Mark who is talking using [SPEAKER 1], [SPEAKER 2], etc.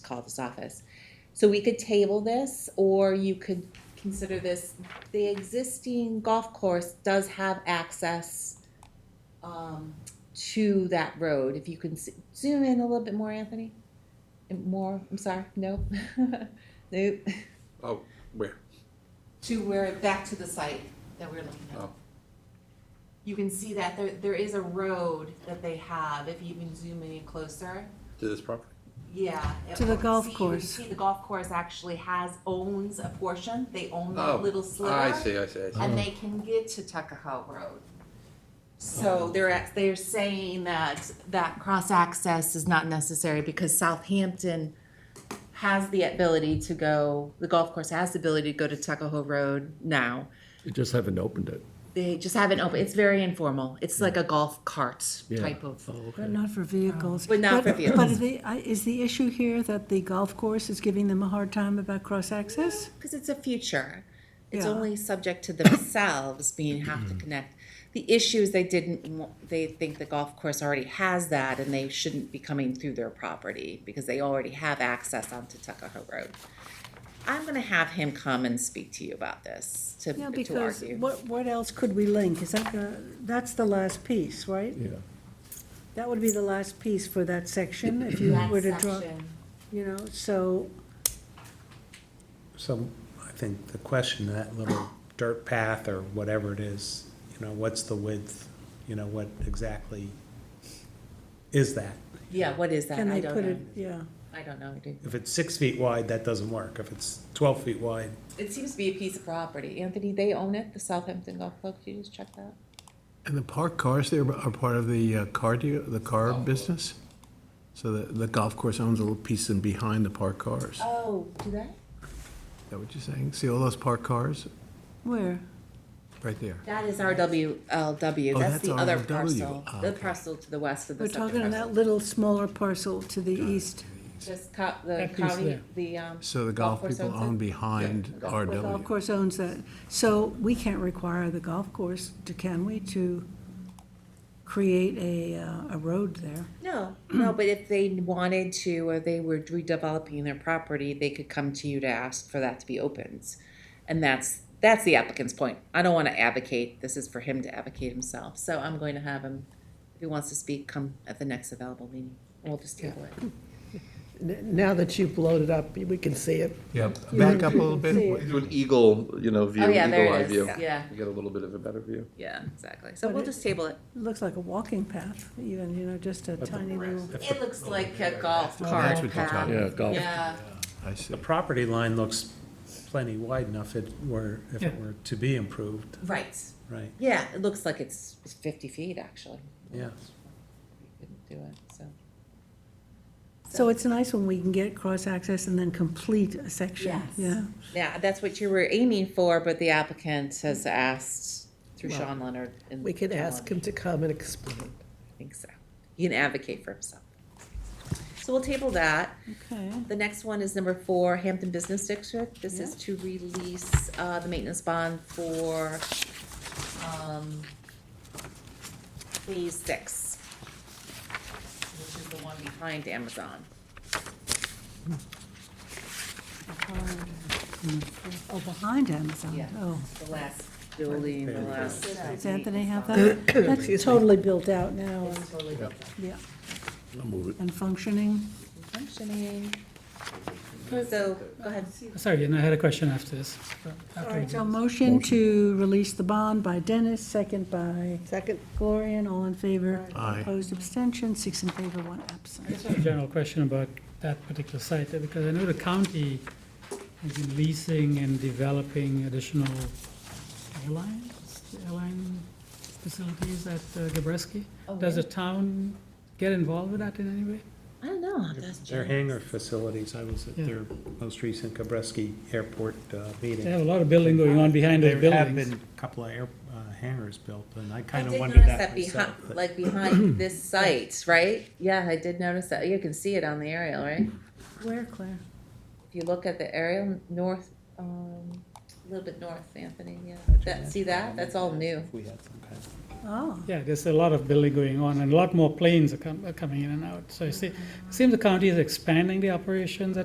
[SPEAKER 1] call this office. So we could table this, or you could consider this, the existing golf course does have access um, to that road. If you can s- zoom in a little bit more, Anthony? And More, I'm sorry, no? Nope.
[SPEAKER 2] Oh, where?
[SPEAKER 1] To where, back to the site that we're looking at.
[SPEAKER 2] Oh.
[SPEAKER 1] You can see that there, there is a road that they have, if you even zoom in closer.
[SPEAKER 2] To this property?
[SPEAKER 1] Yeah.
[SPEAKER 3] To the golf
[SPEAKER 1] See, you can
[SPEAKER 3] course.
[SPEAKER 1] See, the golf course actually has, owns a portion, they own
[SPEAKER 2] Oh,
[SPEAKER 1] that little sliver.
[SPEAKER 2] I see, Oh. I see, I see.
[SPEAKER 1] And they can get to Tuckahoe Road.
[SPEAKER 2] Oh.
[SPEAKER 1] So they're, at- they're saying that that cross-access is not necessary because Southampton has the ability to go, the golf course has the ability to go to Tuckahoe Road now.
[SPEAKER 4] You just haven't opened it.
[SPEAKER 1] They just haven't opened, it's very informal. It's like a golf cart
[SPEAKER 4] Yeah. Oh,
[SPEAKER 1] type of.
[SPEAKER 3] But not for vehicles.
[SPEAKER 1] But not for
[SPEAKER 3] But
[SPEAKER 1] vehicles.
[SPEAKER 3] is the, I- is the issue here that the golf course is giving them a hard time about cross-access?
[SPEAKER 1] Because it's a future. It's
[SPEAKER 3] Yeah.
[SPEAKER 1] only subject to themselves being have to connect. The issue is they didn't, wa- they think the golf course already has that and they shouldn't be coming through their property because they already have access onto Tuckahoe Road. I'm gonna have him come and speak to you about this, to,
[SPEAKER 3] Yeah,
[SPEAKER 1] to
[SPEAKER 3] because
[SPEAKER 1] argue.
[SPEAKER 3] what, what else could we link? Is that the, that's the last piece, right?
[SPEAKER 4] Yeah.
[SPEAKER 3] That would be the last piece for that section, if you were to draw, you know, so,
[SPEAKER 5] So I think the question, that little dirt path or whatever it is, you know, what's the width? You know, what exactly is that?
[SPEAKER 1] Yeah, what is that?
[SPEAKER 3] can
[SPEAKER 1] I
[SPEAKER 3] they
[SPEAKER 1] don't
[SPEAKER 3] put
[SPEAKER 1] know.
[SPEAKER 3] it, yeah.
[SPEAKER 1] I don't know. dude.
[SPEAKER 5] If it's six feet wide, that doesn't work. If it's twelve feet wide,
[SPEAKER 1] It seems to be a piece of property. Anthony, they own it, the Southampton Golf Club. Could you just check that?
[SPEAKER 6] And the parked cars there are part of the uh, car, deal- the car business? So the, the golf course owns a little piece in behind the parked cars. Is
[SPEAKER 1] Oh, do they?
[SPEAKER 6] that what you're saying? See all those parked cars?
[SPEAKER 3] Where?
[SPEAKER 6] Right there.
[SPEAKER 1] That is RWLW,
[SPEAKER 6] Oh,
[SPEAKER 1] that's
[SPEAKER 6] that's
[SPEAKER 1] the other
[SPEAKER 6] RLW.
[SPEAKER 1] parcel,
[SPEAKER 6] Ah,
[SPEAKER 1] the
[SPEAKER 6] okay.
[SPEAKER 1] parcel to the west of the
[SPEAKER 3] We're talking
[SPEAKER 1] second
[SPEAKER 3] on
[SPEAKER 1] parcel.
[SPEAKER 3] that little smaller parcel to the east.
[SPEAKER 1] Just co- the
[SPEAKER 4] That piece
[SPEAKER 1] county,
[SPEAKER 4] there.
[SPEAKER 1] the, um.
[SPEAKER 6] So the golf
[SPEAKER 1] course
[SPEAKER 6] people
[SPEAKER 1] owns it?
[SPEAKER 6] own behind
[SPEAKER 3] The golf
[SPEAKER 6] RW.
[SPEAKER 3] course owns that. So we can't require the golf course, to can we, to create a, uh, a road there?
[SPEAKER 1] No, no, but if they wanted to, or they were redeveloping their property, they could come to you to ask for that to be opened. And that's, that's the applicant's point. I don't wanna advocate, this is for him to advocate himself, so I'm going to have him, if he wants to speak, come at the next available meeting. We'll just table it.
[SPEAKER 7] N- Now that you've blown it up, we can see it.
[SPEAKER 6] Yep, back up a little
[SPEAKER 3] See
[SPEAKER 6] bit.
[SPEAKER 2] Do an eagle, you know, view,
[SPEAKER 1] Oh,
[SPEAKER 2] eagle
[SPEAKER 1] yeah, there
[SPEAKER 2] eye
[SPEAKER 1] it
[SPEAKER 2] view.
[SPEAKER 1] is, yeah,
[SPEAKER 2] You get a little bit of a better view.
[SPEAKER 1] yeah, exactly. So
[SPEAKER 3] But
[SPEAKER 1] we'll
[SPEAKER 3] it-
[SPEAKER 1] just table it.
[SPEAKER 3] It looks like a walking path even, you know, just a tiny little.
[SPEAKER 1] It looks like a golf
[SPEAKER 6] That's
[SPEAKER 1] cart
[SPEAKER 6] what you're
[SPEAKER 1] path.
[SPEAKER 6] talking
[SPEAKER 4] Yeah, golf.
[SPEAKER 1] Yeah,
[SPEAKER 6] I see.
[SPEAKER 5] the property line looks plenty wide enough it were, if it
[SPEAKER 4] Yeah.
[SPEAKER 5] were to be improved,
[SPEAKER 1] right.
[SPEAKER 5] right?
[SPEAKER 1] Yeah, it looks like it's it's fifty feet, actually.
[SPEAKER 5] Yeah.
[SPEAKER 1] We couldn't do it, so.
[SPEAKER 3] So it's nice when we can get cross-access and then complete a section.
[SPEAKER 1] Yes.
[SPEAKER 3] Yeah.
[SPEAKER 1] Yeah, that's what you were aiming for, but the applicant has asked through Sean Leonard. and
[SPEAKER 7] We could
[SPEAKER 1] Sean
[SPEAKER 7] ask him to come and explain.
[SPEAKER 1] I think so. He can advocate for himself. So we'll table that.
[SPEAKER 3] Okay.
[SPEAKER 1] The next one is number four, Hampton Business District. This is to release, uh, the maintenance bond for, um, phase six, which is the one behind Amazon.
[SPEAKER 3] Oh, behind Amazon.
[SPEAKER 1] Yeah.
[SPEAKER 3] Oh,
[SPEAKER 1] The last building, the last.
[SPEAKER 3] does Anthony have that? That's totally built out now. and-
[SPEAKER 1] Totally built
[SPEAKER 3] Yeah,
[SPEAKER 4] I'll move it.
[SPEAKER 3] and functioning.
[SPEAKER 1] up. Functioning. So, go ahead.
[SPEAKER 8] Sorry, and I had a question after this.
[SPEAKER 3] All right, so motion to release the bond by Dennis, second by
[SPEAKER 7] Second,
[SPEAKER 3] Gloria, and all in favor.
[SPEAKER 6] Aye.
[SPEAKER 3] Opposed, abstention, six in favor, one absent.
[SPEAKER 8] Just a general question about that particular site, uh, because I know the county has been leasing and developing additional airlines, airline facilities at uh, Gabreski.
[SPEAKER 1] Oh,
[SPEAKER 8] Does the
[SPEAKER 1] really?
[SPEAKER 8] town get involved with that in any way?
[SPEAKER 1] I don't know. how that's
[SPEAKER 5] Their
[SPEAKER 1] generated.
[SPEAKER 5] hangar facilities, I was at
[SPEAKER 8] Yeah.
[SPEAKER 5] their most recent Kabreski Airport uh, meeting.
[SPEAKER 8] They have a lot of building going on behind those
[SPEAKER 5] There have
[SPEAKER 8] buildings.
[SPEAKER 5] been a couple of air, uh, hangars built, and I
[SPEAKER 1] I
[SPEAKER 5] kind
[SPEAKER 1] did notice
[SPEAKER 5] of wondered that
[SPEAKER 1] that
[SPEAKER 5] myself.
[SPEAKER 1] behind,
[SPEAKER 5] but-
[SPEAKER 1] like behind this site, right? Yeah, I did notice that. You can see it on the aerial, right?
[SPEAKER 3] Where, Claire?
[SPEAKER 1] If you look at the aerial, north, um, a little bit north, Anthony, yeah. That, see that? That's all new.
[SPEAKER 5] If we had some kind of-
[SPEAKER 3] Oh.
[SPEAKER 8] Yeah, there's a lot of building going on, and a lot more planes are com- are coming in and out. So I see, it seems the county is expanding the operations at